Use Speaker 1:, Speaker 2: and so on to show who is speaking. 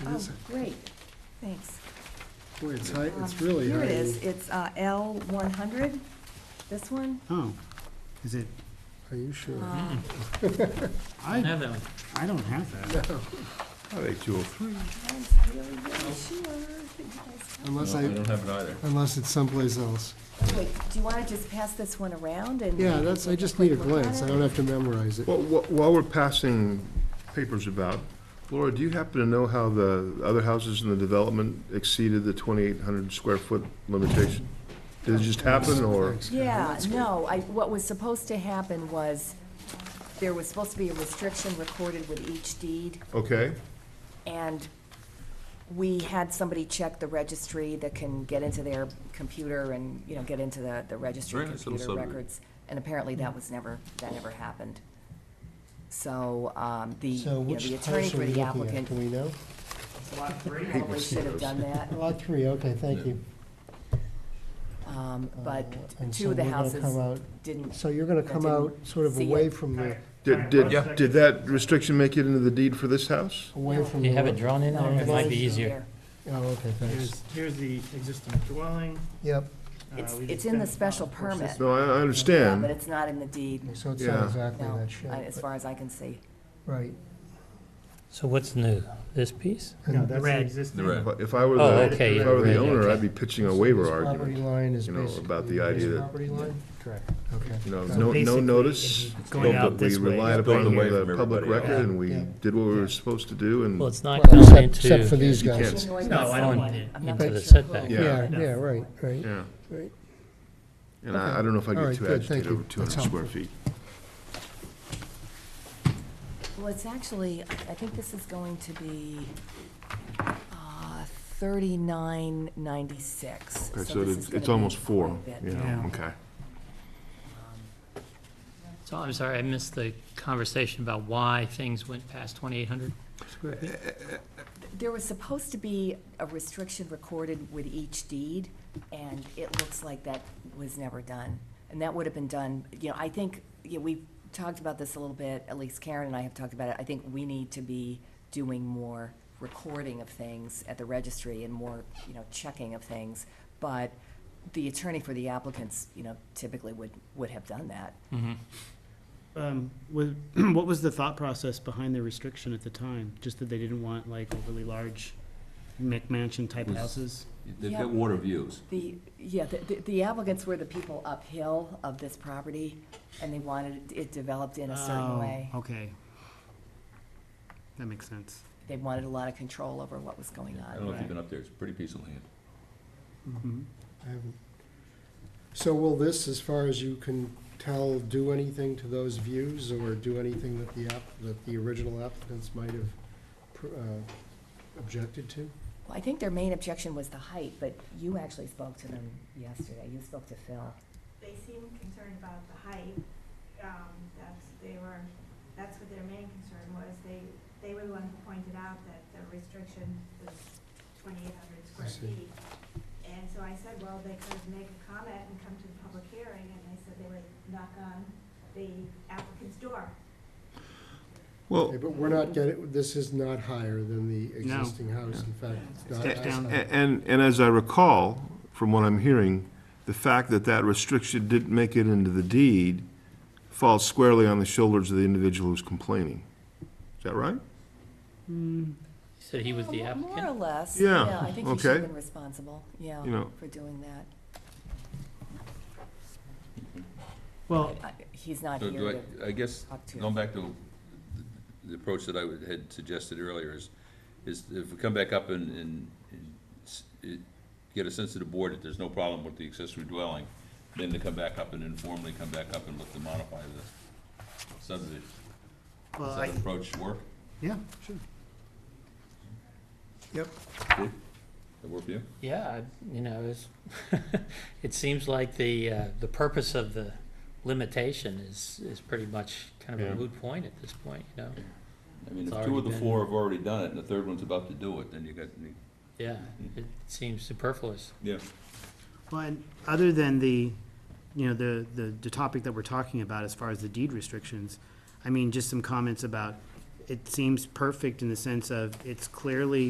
Speaker 1: It
Speaker 2: Oh,
Speaker 1: is,
Speaker 2: great, thanks.
Speaker 1: boy, it's high, it's
Speaker 2: Um,
Speaker 1: really high.
Speaker 2: Here it is, it's uh, L one hundred, this one.
Speaker 3: Oh, is it,
Speaker 1: Are you sure?
Speaker 2: Um,
Speaker 4: I don't
Speaker 3: I,
Speaker 4: have that one.
Speaker 3: I don't have that.
Speaker 5: Are they two oh three?
Speaker 2: I'm really, really sure that you guys have-
Speaker 1: Unless I,
Speaker 5: don't have it either.
Speaker 1: unless it's someplace else.
Speaker 2: Oh, Wait, do you wanna just pass this one around and?
Speaker 1: Yeah, that's, I just need a glance, I don't have to memorize it.
Speaker 5: Well, wh- while we're passing papers about, Laura, do you happen to know how the other houses in the development exceeded the twenty-eight hundred square foot limitation? Did it just happen, or?
Speaker 1: Thanks, Karen.
Speaker 2: Yeah,
Speaker 1: That's good.
Speaker 2: no, I, what was supposed to happen was, there was supposed to be a restriction recorded with each deed,
Speaker 5: Okay,
Speaker 2: and we had somebody check the registry that can get into their computer and, you know, get into the, the registry
Speaker 6: Very nice little
Speaker 2: computer
Speaker 6: subdivision.
Speaker 2: records. And apparently that was never, that never happened. So, um, the, you
Speaker 7: So
Speaker 2: know,
Speaker 7: which
Speaker 2: the attorney
Speaker 7: house are we
Speaker 2: for the
Speaker 7: looking at?
Speaker 2: applicant
Speaker 7: Do we know?
Speaker 2: probably should have done that,
Speaker 7: Lot three, okay, thank you.
Speaker 2: um, but
Speaker 7: Uh, and
Speaker 2: two
Speaker 7: so
Speaker 2: of the
Speaker 7: we're gonna come
Speaker 2: houses
Speaker 7: out-
Speaker 2: didn't,
Speaker 7: So you're gonna
Speaker 2: that
Speaker 7: come
Speaker 2: didn't
Speaker 7: out sort of
Speaker 2: see
Speaker 7: away
Speaker 2: it.
Speaker 7: from the,
Speaker 5: did,
Speaker 6: Yeah.
Speaker 5: did, did that restriction make it into the deed for this house?
Speaker 7: away from the.
Speaker 8: You have it drawn in there, it might be easier.
Speaker 2: there.
Speaker 7: Oh, okay, thanks.
Speaker 4: Here's, here's the existing dwelling.
Speaker 7: Yep,
Speaker 4: Uh,
Speaker 2: It's-
Speaker 4: we
Speaker 2: it's
Speaker 4: just
Speaker 2: in the
Speaker 4: done-
Speaker 2: special
Speaker 4: of course,
Speaker 2: permit.
Speaker 4: this-
Speaker 5: No, I, I
Speaker 2: Yeah, but
Speaker 5: understand,
Speaker 2: it's not in the deed,
Speaker 7: so it's
Speaker 5: Yeah.
Speaker 7: not exactly
Speaker 2: no,
Speaker 7: that shape.
Speaker 2: I- as
Speaker 7: but-
Speaker 2: far as I can see.
Speaker 7: Right.
Speaker 8: So what's new? This piece?
Speaker 4: No,
Speaker 7: And
Speaker 4: that's the
Speaker 7: red.
Speaker 4: existing.
Speaker 6: The red.
Speaker 5: but if I were
Speaker 8: Oh,
Speaker 5: the,
Speaker 8: okay,
Speaker 5: if I
Speaker 8: yeah,
Speaker 5: were the
Speaker 8: right,
Speaker 5: owner,
Speaker 8: okay.
Speaker 5: I'd be pitching a waiver
Speaker 7: This Property
Speaker 5: argument,
Speaker 7: line is
Speaker 5: you know,
Speaker 7: basically.
Speaker 5: about the idea
Speaker 7: this
Speaker 5: that-
Speaker 7: Property line? Correct. Okay.
Speaker 5: you know,
Speaker 7: So
Speaker 5: no, no
Speaker 4: basically,
Speaker 5: notice.
Speaker 4: it's
Speaker 5: but
Speaker 4: going out this way.
Speaker 5: We relied
Speaker 6: Build
Speaker 5: upon
Speaker 6: away
Speaker 5: the
Speaker 6: from
Speaker 5: public
Speaker 6: everybody else.
Speaker 5: record, and we
Speaker 7: Yeah.
Speaker 5: did what we were supposed to do, and.
Speaker 8: Well, it's not
Speaker 7: Well,
Speaker 8: going
Speaker 7: except-
Speaker 8: into.
Speaker 7: Except for these
Speaker 5: You
Speaker 7: guys.
Speaker 5: can't-
Speaker 4: No, I don't
Speaker 8: On
Speaker 4: need it.
Speaker 2: I'm not
Speaker 8: into the
Speaker 2: sure who-
Speaker 8: setback.
Speaker 5: Yeah.
Speaker 7: Yeah,
Speaker 4: No.
Speaker 7: yeah, right, right.
Speaker 5: Yeah.
Speaker 7: Right.
Speaker 5: And I, I don't know if I
Speaker 7: All
Speaker 5: get
Speaker 7: right,
Speaker 5: too
Speaker 7: good, thank
Speaker 5: agitated
Speaker 7: you.
Speaker 5: over two hundred
Speaker 7: That's
Speaker 5: square
Speaker 7: helpful.
Speaker 5: feet.
Speaker 2: Well, it's actually, I think this is going to be uh, thirty-nine ninety-six.
Speaker 5: Okay, so it's, it's almost four, yeah,
Speaker 4: Yeah.
Speaker 5: okay.
Speaker 8: So I'm sorry, I missed the conversation about why things went past 2,800.
Speaker 2: There was supposed to be a restriction recorded with each deed, and it looks like that was never done. And that would have been done, you know, I think, yeah, we've talked about this a little bit, at least Karen and I have talked about it. I think we need to be doing more recording of things at the registry and more, you know, checking of things. But the attorney for the applicants, you know, typically would, would have done that.
Speaker 4: Um, was, what was the thought process behind the restriction at the time? Just that they didn't want like overly large McMansion type
Speaker 6: Was-
Speaker 4: houses?
Speaker 6: They've
Speaker 2: Yeah.
Speaker 6: got water views.
Speaker 2: The, yeah, the- the the applicants were the people uphill of this property, and they wanted it developed in a certain
Speaker 4: Oh,
Speaker 2: way.
Speaker 4: Okay. That makes sense.
Speaker 2: They wanted a lot of control over what was going
Speaker 6: I don't know
Speaker 2: on.
Speaker 6: if you've been up there, it's a pretty piece of land.
Speaker 3: Mm-hmm.
Speaker 4: Mhm.
Speaker 1: I haven't-
Speaker 7: Um, So will this, as far as you can tell, do anything to those views or do anything that the app, that the original applicants might have pr- uh, objected to?
Speaker 2: Well, I think their main objection was the height, but you actually spoke to them yesterday. You spoke to Phil.
Speaker 9: they seemed concerned about the height. Um, that's, they were, that's what their main concern was. They, they were the ones who pointed out that the restriction was twenty-eight
Speaker 7: I
Speaker 9: hundred square
Speaker 7: see.
Speaker 9: feet. And so I said, well, they could make a comment and come to the public hearing, and they said they would knock on the applicant's door.
Speaker 5: Well,
Speaker 7: Okay, But we're not getting, this is not higher than the
Speaker 4: No.
Speaker 7: existing house, in fact, it's not.
Speaker 4: Step down.
Speaker 5: a- and, and as I recall, from what I'm hearing, the fact that that restriction didn't make it into the deed falls squarely on the shoulders of the individual who's complaining. Is that right?
Speaker 8: So he was the
Speaker 2: Well, more- More
Speaker 8: applicant?
Speaker 2: or less.
Speaker 5: Yeah,
Speaker 2: I think he should have
Speaker 5: okay.
Speaker 2: been responsible, yeah,
Speaker 5: You know.
Speaker 2: for doing that.
Speaker 4: Well,
Speaker 2: I- He's not
Speaker 6: So
Speaker 2: here
Speaker 6: do
Speaker 2: to
Speaker 6: I, I guess,
Speaker 2: talk to.
Speaker 6: going back to the approach that I would- had suggested earlier is, is if we come back up and, and and s- it- get a sense of the board that there's no problem with the accessory dwelling, then to come back up and informally come back up and look to modify the subdivision.
Speaker 4: well,
Speaker 6: Does
Speaker 4: I,
Speaker 6: that approach work?
Speaker 4: yeah, sure.
Speaker 6: That work for you?
Speaker 8: Yeah, I- you know, it's, it seems like the, uh, the purpose of the limitation is, is pretty much kind of
Speaker 5: Yeah.
Speaker 8: a moot point at this point, you know?
Speaker 6: I mean,
Speaker 8: It's
Speaker 6: if two of
Speaker 8: already
Speaker 6: the
Speaker 8: been-
Speaker 6: four have already done it, and the third one's about to do it, then you got,
Speaker 8: Yeah, it seems superfluous.
Speaker 6: yeah.
Speaker 4: Well, and other than the, you know, the, the, the topic that we're talking about as far as the deed restrictions, I mean, just some comments about, it seems perfect in the sense of, it's clearly